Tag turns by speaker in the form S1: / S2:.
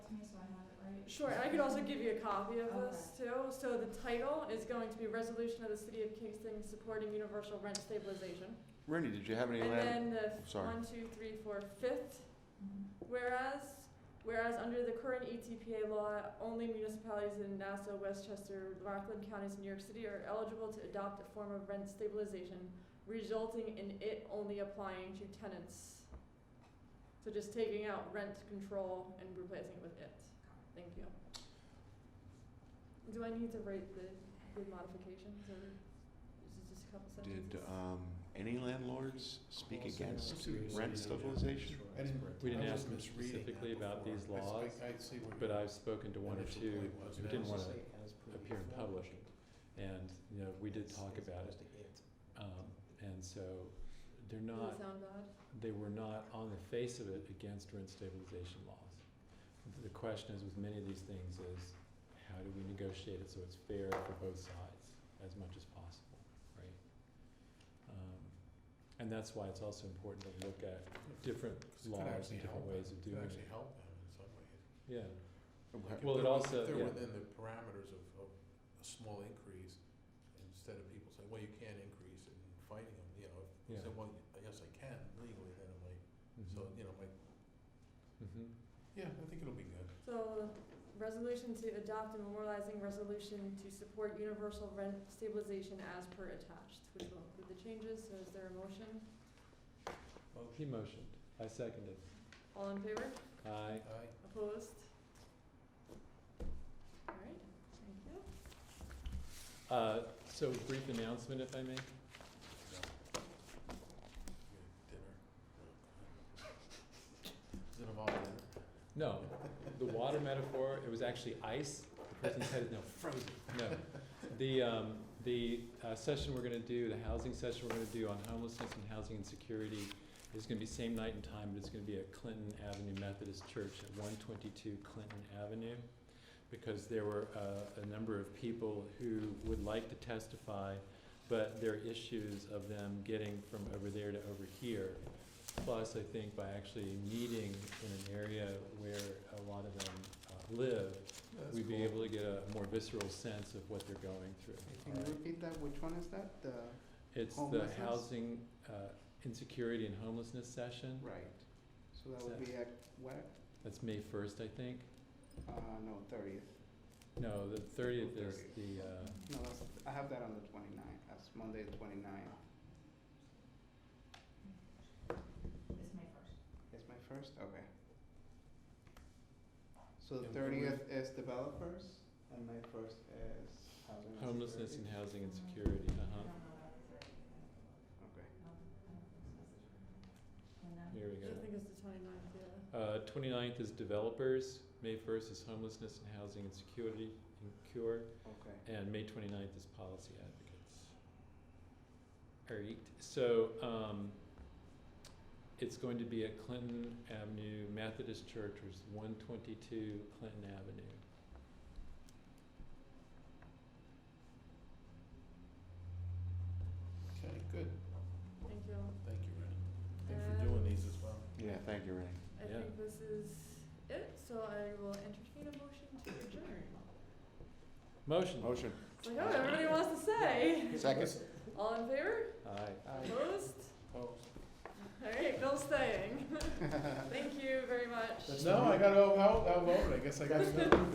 S1: Sure, and I could also give you a copy of this too. So the title is going to be Resolution of the City of Kingston Supporting Universal Rent Stabilization.
S2: Rennie, did you have any
S1: And
S2: land?
S1: then the
S2: I'm sorry.
S1: one, two, three, four, fifth, whereas, whereas under the current E ETPA law, only municipalities in Nassau, Westchester, Rockland counties, and New York City are eligible to adopt a form of rent stabilization, resulting in it only applying to tenants. So just taking out rent control and replacing it with it. Thank you. Do I need to write the, the modifications or is it just a couple sentences?
S2: Did
S3: uh,
S2: um, any landlords speak
S4: Also,
S2: against
S4: yeah,
S2: rent
S4: yeah,
S2: stabilization?
S4: sure, that's correct.
S5: We didn't
S4: I
S5: ask
S4: was
S5: them
S4: misreading that
S5: specifically about
S4: before.
S5: these
S4: I s- I-
S5: laws,
S4: I see what
S5: But
S4: your
S5: I've spoken to one or
S4: initial
S5: two
S4: point was.
S5: who
S4: Now,
S5: didn't
S4: it's
S5: want to,
S4: just like as per
S5: appear in
S4: before,
S5: public.
S4: should-
S5: and, you know, we did
S4: it's-
S5: talk
S4: it's
S5: about it.
S4: supposed to hit.
S5: Um, And so they're
S1: Does
S5: not,
S1: it sound bad?
S5: they were not on the face of it against rent stabilization laws. The question is with many of these things is, how do we negotiate it so it's fair for both sides as much as possible, right? Um, And that's why it's also important to look at different
S4: It could
S5: laws and
S4: actually
S5: different
S4: help
S5: ways of
S4: them. It
S5: doing
S4: Could actually
S5: it.
S4: help them in some way.
S5: Yeah,
S2: Okay.
S4: If
S5: Well, it
S4: they're-
S5: also-
S4: If they're
S5: yeah.
S4: within the parameters of, of a small increase, instead of people saying, well, you can't increase it and fighting them, you know, if
S5: Yeah.
S4: you say, well, yes, I can legally, then I'm like, so,
S5: Mhm.
S4: you know, like,
S5: Mhm.
S4: yeah, I think it'll be good.
S1: So, resolution to adopt and memorializing resolution to support universal rent stabilization as per attached, which will include the changes, so is there a motion?
S5: He motioned, I seconded.
S1: All in favor?
S5: Aye.
S4: Aye.
S1: Opposed? Alright, thank you.
S5: Uh, So brief announcement, if I may.
S4: Dinner. Does it involve dinner?
S5: No, the water metaphor, it was actually ice. The person's head is now frozen. No. The, um, the uh, session we're gonna do, the housing session we're gonna do on homelessness and housing insecurity is gonna be same night and time, but it's gonna be at Clinton Avenue Methodist Church at one twenty-two Clinton Avenue. Because there were, uh, a number of people who would like to testify, but there are issues of them getting from over there to over here. Plus, I think by actually meeting in an area where a lot of them uh, live, we'd be able to get a more visceral sense of what they're going through.
S3: Can you repeat that? Which one is that? The,
S5: It's the
S3: Homelessness?
S5: housing uh, insecurity and homelessness session.
S3: right. So that would be at what?
S5: That's May 1st, I think.
S3: Uh, no, thirtieth.
S5: No, the 30th is the, uh,
S3: No, that's, I have that on the 29th. That's Monday, the 29th.
S6: It's May first.
S3: Is my first? Okay. So the
S5: And when we-
S3: thirtieth is developers and my first is housing. and
S5: homelessness and
S3: security.
S5: housing insecurity,
S6: I
S5: uh-huh.
S6: don't know about the thirtieth.
S3: Okay.
S6: I don't- I don't think so. And then-
S5: Here we
S1: I think
S5: go.
S1: it's the twenty-ninth, yeah.
S5: Uh, 29th is developers, May 1st is homelessness and housing insecurity and cure,
S3: Okay.
S5: and May 29th is policy advocates. All right, so um, it's going to be at Clinton Avenue Methodist Church, which is 122 Clinton Avenue.
S4: Okay, good.
S1: Thank you.
S4: Thank you, Randy. Thanks for doing these as well.
S2: Yeah, thank you, Rennie.
S1: I
S5: Yeah.
S1: think this is it, so I will entertain a motion to adjourn.
S5: Motion.
S2: Motion.
S1: It's like, oh, everybody wants to say.
S2: Second.
S1: All in favor?
S5: Aye.
S1: Opposed?
S4: Opposed?
S1: Alright, Bill's staying. Thank you very much.
S4: Uh, No, I got out, out, outvoted. I guess I got to go.